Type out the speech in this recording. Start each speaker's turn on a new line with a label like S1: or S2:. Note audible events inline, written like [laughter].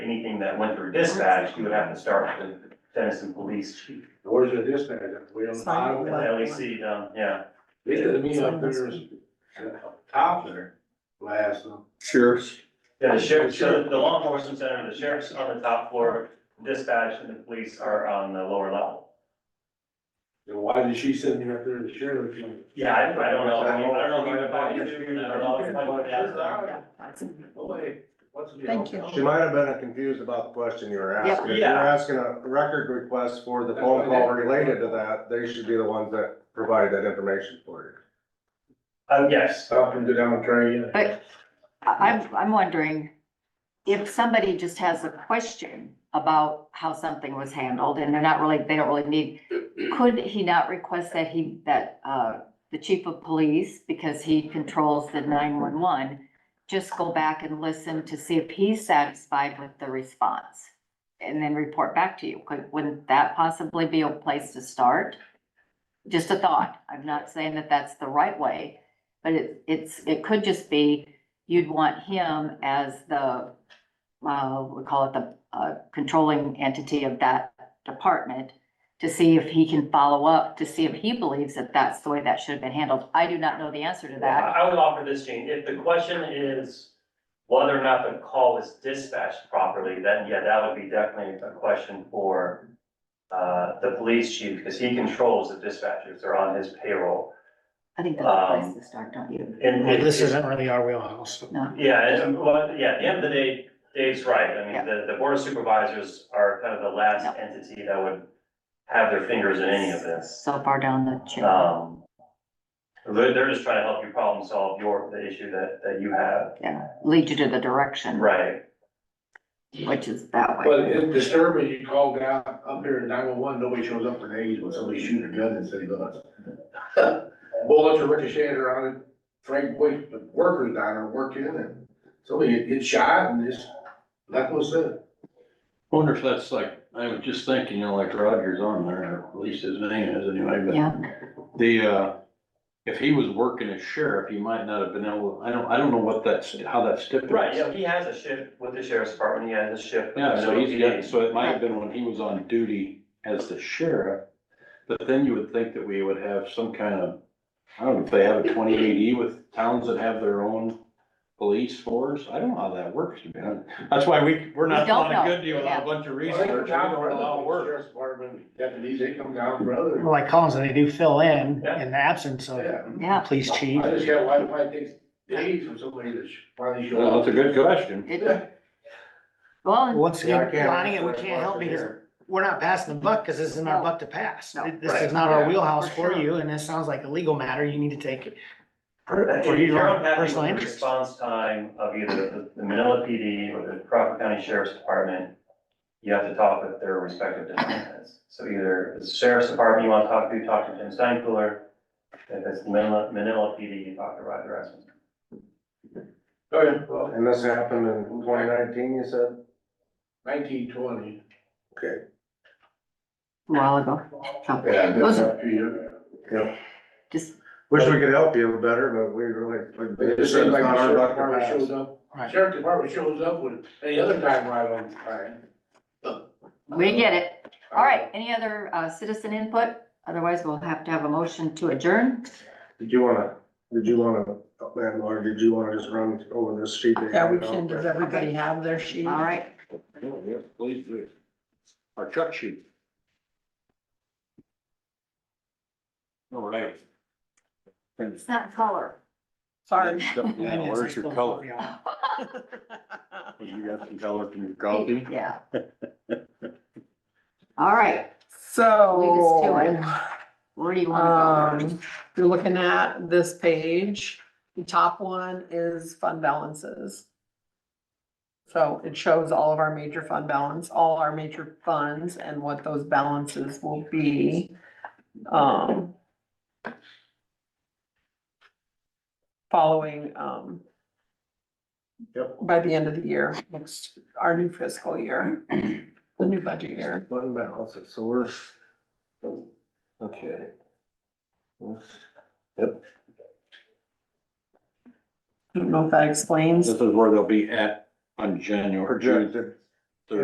S1: that went through dispatch, you would have to start with the Denison Police Chief.
S2: Where's the dispatch? We on the
S1: With
S2: bottom?
S1: the LEC, down, yeah.
S2: They did me up there, as a top there, last, uh,
S3: Sheriff's.
S1: Yeah, the sheriff, so the law enforcement center, the sheriff's on the top floor, dispatch and the police are on the lower level.
S2: then why did she send me up there to sheriff?
S1: Yeah, I, I don't know, I mean, I don't know if I can do, I don't know if I would ask
S4: Oh,
S1: them.
S5: Yeah, that's-
S2: Boy, what's the deal?
S5: Thank you.
S6: She might have been confused about the question you were asking. If you're
S1: Yeah.
S6: asking a record request for the phone call related to that, they should be the ones that provide that information for you.
S1: Um, yes,
S2: Up and down train.
S5: I- I'm, I'm wondering if somebody just has a question about how something was handled and they're not really, they don't really need, could he not request that he, that, uh, the chief of police, because he controls the nine-one-one, just go back and listen to see if he's satisfied with the response? And then report back to you. Could, wouldn't that possibly be a place to start? Just a thought. I'm not saying that that's the right way, but it, it's, it could just be you'd want him as the, uh, we call it the, uh, controlling entity of that department to see if he can follow up, to see if he believes that that's the way that should have been handled. I do not know the answer to
S1: I
S5: that.
S1: I would offer this change, if the question is whether or not the call was dispatched properly, then yeah, that would be definitely a question for uh, the police chief, because he controls the dispatchers, they're on his payroll.
S5: I think that's a place to start, don't you?
S1: And
S7: Well, This
S1: it's-
S7: isn't really our wheelhouse.
S5: No,
S1: Yeah, and, um, well, yeah, at the end of the day, Dave's right, I
S5: Yeah.
S1: mean, the, the board of supervisors are kind of the last
S5: No.
S1: entity that would have their fingers in any of this.
S5: so far down the chain.
S1: Um, they're, they're just trying to help you problem solve your, the issue that, that you have,
S5: Yeah, lead you to the direction,
S1: right?
S5: which is that way.
S2: But it's disturbing, you called out up here at nine one one, nobody shows up for days when somebody shooting a gun in city limits. [laughs] Bullets are ricocheting around it, Frank Boyd, the workers down there working and somebody gets shot and just, nothing was said.
S3: Wonder if that's like, I was just thinking, you know, like Roger's on there, or at least his name is anyway, but.
S5: Yeah,
S3: The, uh, if he was working as sheriff, he might not have been able, I don't, I don't know what that's, how that's stipulated.
S1: Right, yeah, he has a shift with the sheriff's department, he has a shift. with
S3: Yeah,
S1: the
S3: so he's
S1: LPD.
S3: got, so it might have been when he was on duty as the sheriff, but then you would think that we would have some kind of, I don't know if they have a twenty eighty with towns that have their own police force, I don't know how that works, man. That's why we, we're not
S5: We don't
S3: doing a
S5: know.
S3: good deal without a bunch of
S2: Well,
S3: research,
S2: they come
S3: we don't
S2: down for
S3: have
S2: a
S3: a lot of work.
S2: Sheriff's Department deputies, they come down for others.
S7: Like Collins, they do fill in
S1: Yeah.
S7: in the absence of
S2: Yeah.
S5: yeah,
S7: police chief.
S2: I just got, why, why it takes days for somebody to sh- finally show
S3: Well,
S2: up?
S3: That's a good question.
S5: it, well,
S7: Once
S6: Yeah, I
S7: again,
S6: can't
S7: Lonnie,
S6: answer
S7: we
S6: that
S7: can't help
S6: question
S7: because
S6: either.
S7: we're not passing the buck because this isn't our buck to pass.
S5: No.
S7: This
S1: Right.
S7: is not our
S2: Yeah.
S7: wheelhouse
S5: For
S7: for
S5: sure.
S7: you and this sounds like a legal matter. You need to take it.
S1: If
S7: For
S1: you're
S7: your own
S1: unhappy with uh,
S7: personal
S1: the
S7: interest.
S1: response time of either the- the Manila PD or the Crawford County Sheriff's Department, you have to talk with their respective departments. So either the Sheriff's Department you want to talk to, talk to Jim Steinkühler. If it's Manila, Manila PD, you talk to Roger Esmond.
S2: Oh, yeah, well,
S6: And this happened in twenty nineteen, you said?
S2: nineteen twenty.
S6: Okay.
S5: a while ago. So,
S2: Yeah.
S5: Those-
S6: Yeah.
S5: Just,
S6: Wish we could help you better, but we really.
S2: It just seems like
S6: It's not
S2: the
S6: our
S2: sheriff department
S6: buck to pass.
S2: shows up,
S7: Right.
S2: sheriff department shows up with any other time right on time.
S5: we get it. All right, any other uh, citizen input? Otherwise, we'll have to have a motion to adjourn.
S6: Did you wanna, did you wanna, man, or did you wanna just run over this sheet? that you
S4: Yeah, we
S6: handed out?
S4: can, does everybody have their sheet?
S5: All right.
S3: Yeah, yeah, please do. Our truck shoot. All right.
S5: It's not color. [laughs]
S4: Sorry.
S7: [laughs]
S3: Now, Where's your color? You got some color from your coffee?
S5: Yeah. All right,
S4: [laughs] So,
S5: where do you want to
S4: um, you're looking at this page, the top one is fund balances. So it shows all of our major fund balance, all our major funds and what those balances will be. Um. Following, um.
S6: Yep.
S4: By the end of the year, next, our new fiscal year, the new budget year.
S6: Fund balance, so we're. Okay. Yep,
S4: I don't know if that explains.
S3: This is where they'll be at on January, June
S6: projected,